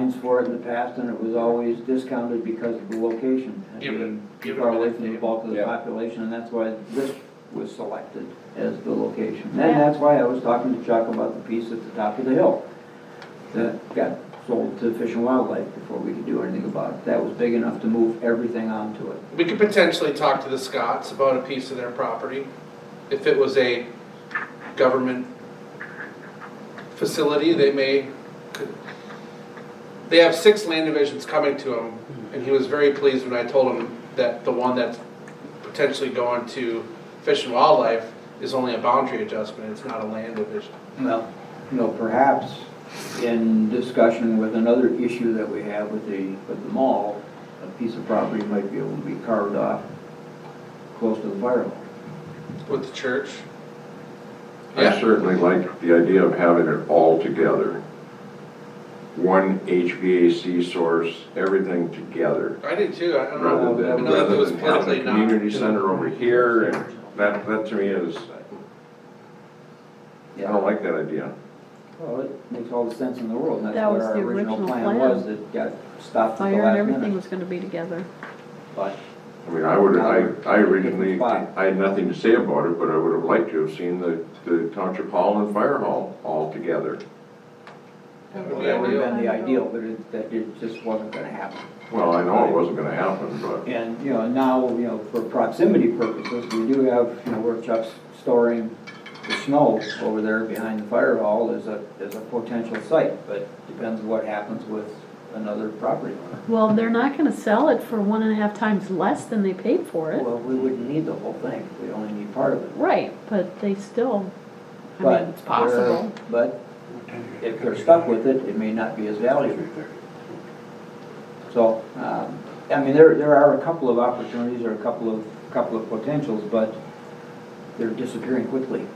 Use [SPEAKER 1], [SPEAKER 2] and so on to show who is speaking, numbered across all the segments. [SPEAKER 1] names for it in the past, and it was always discounted because of the location.
[SPEAKER 2] Give it- give it a
[SPEAKER 1] Far away
[SPEAKER 2] minute,
[SPEAKER 1] from the
[SPEAKER 2] Dave.
[SPEAKER 1] bulk of the
[SPEAKER 3] Yeah.
[SPEAKER 1] population, and that's why this was selected as the location.
[SPEAKER 4] Yeah.
[SPEAKER 1] And that's why I was talking to Chuck about the piece at the top of the hill that got sold to Fish and Wildlife before we could do anything about it. That was big enough to move everything onto it.
[SPEAKER 2] We could potentially talk to the Scots about a piece of their property, if it was a government facility, they may, could- they have six land divisions coming to him,
[SPEAKER 1] Hmm.
[SPEAKER 2] and he was very pleased when I told him that the one that's potentially going to Fish and Wildlife is only a boundary adjustment, it's not a land division.
[SPEAKER 1] Well. You know, perhaps in discussion with another issue that we have with the, with the mall, a piece of property might be able to be carved off close to the fire hall.
[SPEAKER 2] With the church?
[SPEAKER 5] I
[SPEAKER 2] Yeah,
[SPEAKER 5] certainly like the idea of having it all together. One HVAC source, everything together,
[SPEAKER 2] I did too, I don't know,
[SPEAKER 5] rather
[SPEAKER 2] I
[SPEAKER 5] than,
[SPEAKER 2] know that it
[SPEAKER 5] rather
[SPEAKER 2] was
[SPEAKER 5] than having
[SPEAKER 2] politically
[SPEAKER 5] a
[SPEAKER 2] not.
[SPEAKER 5] community center over here, and that, that to me is, I don't like that idea.
[SPEAKER 1] Well, it makes all the sense in the world, and that's
[SPEAKER 4] That
[SPEAKER 1] what
[SPEAKER 4] was
[SPEAKER 1] our
[SPEAKER 4] the
[SPEAKER 1] original
[SPEAKER 4] original
[SPEAKER 1] plan
[SPEAKER 4] plan.
[SPEAKER 1] was, that got stopped at the
[SPEAKER 4] Fire and
[SPEAKER 1] last
[SPEAKER 4] everything
[SPEAKER 1] minute.
[SPEAKER 4] was gonna be together.
[SPEAKER 1] But
[SPEAKER 5] I mean, I would, I, I originally,
[SPEAKER 1] Why?
[SPEAKER 5] I had nothing to say about it, but I would have liked to have seen the, the township hall and fire hall all together.
[SPEAKER 2] That would be
[SPEAKER 1] that would
[SPEAKER 2] ideal.
[SPEAKER 1] have been the ideal, but it, that it just wasn't gonna happen.
[SPEAKER 5] Well, I know it wasn't gonna happen, but
[SPEAKER 1] And, you know, now, you know, for proximity purposes, we do have, you know, where Chuck's storing the snow over there behind the fire hall is a, is a potential site, but depends what happens with another property owner.
[SPEAKER 4] Well, they're not gonna sell it for one and a half times less than they paid for it.
[SPEAKER 1] Well, we wouldn't need the whole thing, we only need part of it.
[SPEAKER 4] Right, but they still, I mean,
[SPEAKER 1] But
[SPEAKER 4] it's
[SPEAKER 1] they're-
[SPEAKER 4] possible.
[SPEAKER 1] But if they're stuck with it, it may not be as valuable. So, um, I mean, there, there are a couple of opportunities or a couple of, couple of potentials, but they're disappearing quickly.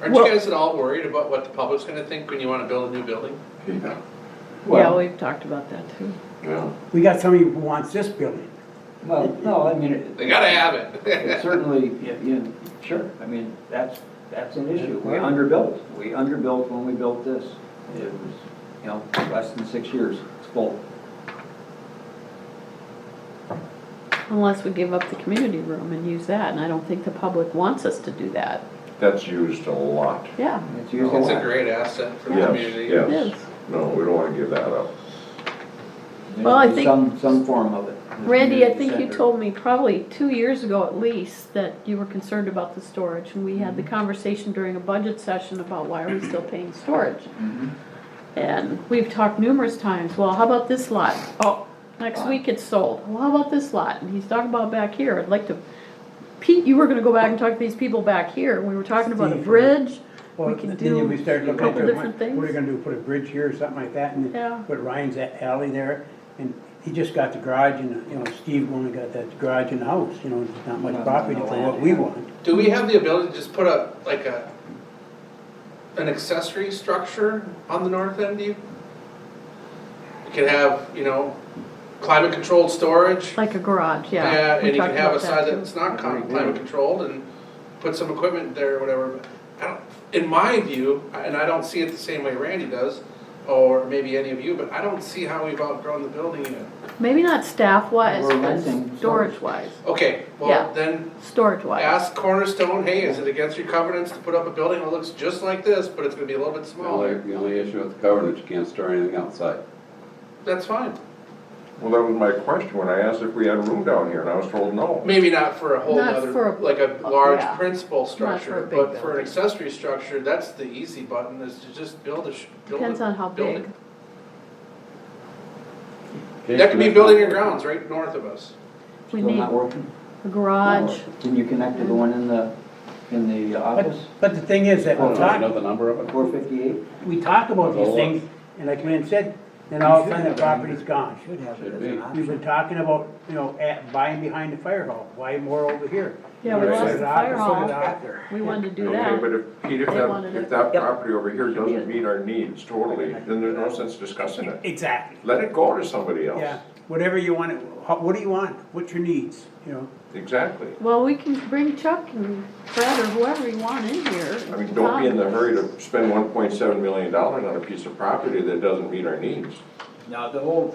[SPEAKER 2] Aren't you guys at all worried about what the public's gonna think when you wanna build a new building?
[SPEAKER 5] yeah,
[SPEAKER 4] Yeah,
[SPEAKER 1] Well-
[SPEAKER 4] we've talked about that too.
[SPEAKER 5] yeah.
[SPEAKER 6] We got somebody who wants this building.
[SPEAKER 1] Well, no, I mean, it-
[SPEAKER 2] They gotta have it.
[SPEAKER 1] it certainly, yeah, you know, sure, I mean, that's, that's an issue. We underbuilt, we underbuilt when we built this. It was, you know, less than six years, it's full.
[SPEAKER 4] Unless we give up the community room and use that, and I don't think the public wants us to do that.
[SPEAKER 5] That's used a lot.
[SPEAKER 4] Yeah,
[SPEAKER 1] It's used a
[SPEAKER 2] It's a
[SPEAKER 1] lot.
[SPEAKER 2] great asset for the
[SPEAKER 5] Yes,
[SPEAKER 2] community.
[SPEAKER 4] it
[SPEAKER 5] yes.
[SPEAKER 4] is.
[SPEAKER 5] No, we don't wanna give that up.
[SPEAKER 1] There's
[SPEAKER 4] Well, I think-
[SPEAKER 1] Some, some form of it.
[SPEAKER 4] Randy, I think you
[SPEAKER 1] Center.
[SPEAKER 4] told me probably two years ago at least that you were concerned about the storage. And we
[SPEAKER 1] Mm-hmm.
[SPEAKER 4] had the conversation during a budget session about why are we still paying storage?
[SPEAKER 1] Mhm.
[SPEAKER 4] And we've talked numerous times, well, how about this lot? Oh, next week it's sold. Well, how about this lot? And he's talking about back here, I'd like to, Pete, you were gonna go back and talk to these people back here. We were talking about a
[SPEAKER 6] Steve.
[SPEAKER 4] bridge, we
[SPEAKER 6] Well,
[SPEAKER 4] can
[SPEAKER 6] then
[SPEAKER 4] do
[SPEAKER 6] we start
[SPEAKER 4] a
[SPEAKER 6] looking at
[SPEAKER 4] couple
[SPEAKER 6] the-
[SPEAKER 4] different things.
[SPEAKER 6] What are you gonna do, put a bridge here or something like that, and
[SPEAKER 4] Yeah.
[SPEAKER 6] then put Ryan's a- alley there? And he just got the garage and, you know, Steve only got that garage and the house, you know, it's not much
[SPEAKER 1] Well,
[SPEAKER 6] property
[SPEAKER 1] no
[SPEAKER 6] for
[SPEAKER 1] land,
[SPEAKER 6] what we
[SPEAKER 1] yeah.
[SPEAKER 6] want.
[SPEAKER 2] Do we have the ability to just put a, like a, an accessory structure on the north end, do you? You can have, you know, climate controlled storage.
[SPEAKER 4] like a garage, yeah.
[SPEAKER 2] Yeah,
[SPEAKER 4] We
[SPEAKER 2] and you can
[SPEAKER 4] talked
[SPEAKER 2] have a
[SPEAKER 4] about
[SPEAKER 2] side
[SPEAKER 4] too.
[SPEAKER 2] that's not
[SPEAKER 1] Agreed, yeah.
[SPEAKER 2] climate controlled and put some equipment there or whatever. But I don't, in my view, and I don't see it the same way Randy does, or maybe any of you, but I don't see how we've outgrown the building yet.
[SPEAKER 4] Maybe not staff wise,
[SPEAKER 1] We're
[SPEAKER 4] but
[SPEAKER 1] renting
[SPEAKER 4] storage wise,
[SPEAKER 2] Okay,
[SPEAKER 4] Yeah.
[SPEAKER 2] well, then
[SPEAKER 4] storage wise.
[SPEAKER 2] Ask Cornerstone, hey, is it against your covenants to put up a building that looks just like this, but it's gonna be a little bit
[SPEAKER 7] The only,
[SPEAKER 2] smaller?
[SPEAKER 7] the only issue with the covenant, you can't store anything outside.
[SPEAKER 2] That's fine.
[SPEAKER 5] Well, that was my question when I asked if we had room down here, and I was told no.
[SPEAKER 2] Maybe not for a whole
[SPEAKER 4] Not for
[SPEAKER 2] other,
[SPEAKER 4] a-
[SPEAKER 2] like a
[SPEAKER 4] uh,
[SPEAKER 2] large
[SPEAKER 4] yeah.
[SPEAKER 2] principal
[SPEAKER 4] for a
[SPEAKER 2] structure,
[SPEAKER 4] big
[SPEAKER 2] but for an
[SPEAKER 4] building.
[SPEAKER 2] accessory structure, that's the easy button, is to just build a, sh- build a building.
[SPEAKER 4] Depends on how big.
[SPEAKER 2] That could be building your grounds right north of us.
[SPEAKER 4] We
[SPEAKER 1] Still
[SPEAKER 4] need
[SPEAKER 1] not working?
[SPEAKER 4] a garage.
[SPEAKER 1] Can you connect to the one in the, in the
[SPEAKER 6] But,
[SPEAKER 1] office,
[SPEAKER 6] but the thing is that
[SPEAKER 7] I
[SPEAKER 6] we
[SPEAKER 7] don't know, you know
[SPEAKER 6] talk,
[SPEAKER 7] the number of it?
[SPEAKER 1] four fifty-eight?
[SPEAKER 6] we talk about these
[SPEAKER 7] Well,
[SPEAKER 6] things, and like Lynn said, then all of a sudden the property's gone.
[SPEAKER 1] Should have
[SPEAKER 7] it as an
[SPEAKER 6] We've been talking about, you know, at, buying behind the fire hall, why more over here?
[SPEAKER 4] Yeah, we
[SPEAKER 6] Put it
[SPEAKER 4] lost the
[SPEAKER 6] out-
[SPEAKER 4] fire
[SPEAKER 6] put it
[SPEAKER 4] hall.
[SPEAKER 6] out there.
[SPEAKER 4] We wanted to do
[SPEAKER 5] Okay, but
[SPEAKER 4] that.
[SPEAKER 5] if, Pete, if
[SPEAKER 4] They wanted
[SPEAKER 5] that,
[SPEAKER 4] it.
[SPEAKER 5] if that
[SPEAKER 6] Yep.
[SPEAKER 5] property over here doesn't meet our needs totally, then there's no sense discussing it.
[SPEAKER 6] Exactly.
[SPEAKER 5] Let it go to somebody else.
[SPEAKER 6] Yeah, whatever you want, how- what do you want, what's your needs, you know?
[SPEAKER 5] Exactly.
[SPEAKER 4] Well, we can bring Chuck and Fred or whoever you want in here.
[SPEAKER 5] I mean, don't be in the hurry to spend one point seven million dollars on a piece of property that doesn't meet our needs.
[SPEAKER 1] Now, the whole